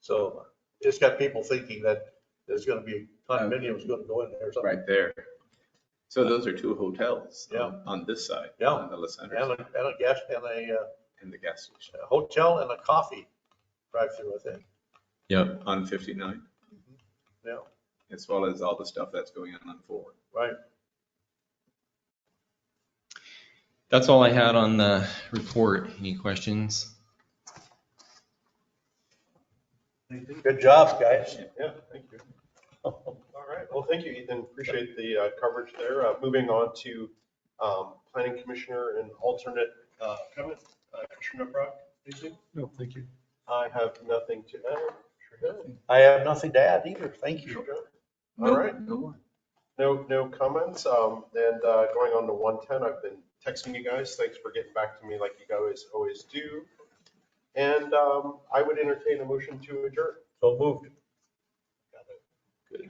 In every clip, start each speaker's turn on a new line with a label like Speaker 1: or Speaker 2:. Speaker 1: So it's got people thinking that there's gonna be condominiums gonna go in there or something.
Speaker 2: right there. So those are two hotels. um,
Speaker 1: Yeah.
Speaker 2: On this side.
Speaker 1: Yeah.
Speaker 2: On the La Center
Speaker 1: And a,
Speaker 2: side,
Speaker 1: and a gas, and a uh,
Speaker 2: and the gas station
Speaker 1: a hotel and a coffee drive-through, I think,
Speaker 3: Yeah,
Speaker 2: on 59,
Speaker 1: yeah,
Speaker 2: as well as all the stuff that's going on on 4.
Speaker 1: right.
Speaker 3: that's all I had on the report. Any questions?
Speaker 1: Good job, guys.
Speaker 4: Yeah, thank you. All right, well, thank you, Ethan. Appreciate the uh, coverage there. Uh, Moving on to um, planning commissioner and alternate uh, comment. Uh, Commissioner Brock, anything?
Speaker 5: No, thank you.
Speaker 4: I have nothing to add.
Speaker 1: I have nothing to add either, thank you.
Speaker 4: All right,
Speaker 2: No more.
Speaker 4: no, no comments. Um, And uh, going on to 110, I've been texting you guys. Thanks for getting back to me like you guys always do. And um, I would entertain a motion to adjourn.
Speaker 1: So moved.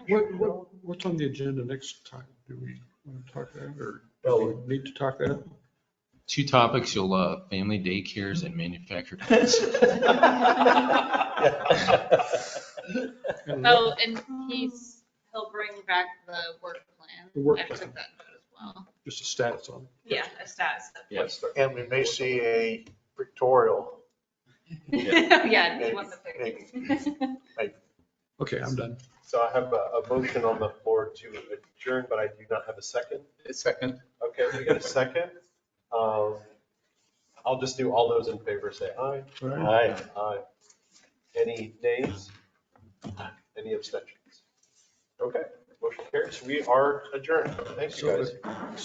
Speaker 5: What, what, what's on the agenda next time? Do we want to talk that or do
Speaker 1: Well-
Speaker 5: we need to talk that?
Speaker 3: Two topics you'll love, family daycares and manufactured homes.
Speaker 5: And
Speaker 6: Oh, and he's, he'll bring back the work
Speaker 5: The work
Speaker 6: plan. I
Speaker 5: plan.
Speaker 6: took that note as well.
Speaker 5: Just a status on
Speaker 6: Yeah, a status.
Speaker 2: Yes.
Speaker 1: And we may see a pictorial.
Speaker 6: Yeah, he wants a picture.
Speaker 5: it. Okay, I'm done.
Speaker 4: So I have a a motion on the floor to adjourn, but I do not have a second.
Speaker 2: Second.
Speaker 4: Okay, we got a second. Um, I'll just do all those in favor, say aye.
Speaker 5: All
Speaker 1: Aye.
Speaker 5: right.
Speaker 4: Aye. Any nays? Any abstentions? Okay, motion carries. We are adjourned. Thank you,
Speaker 5: So
Speaker 4: guys.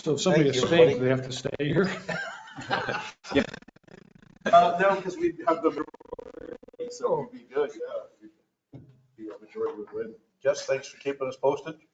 Speaker 5: So if somebody
Speaker 1: Thank you,
Speaker 5: abstains,
Speaker 1: everybody.
Speaker 5: they have to stay here.
Speaker 4: Uh, no, because we have the. So we'd be good, yeah. The majority would win.
Speaker 1: Jess, thanks for keeping us posted.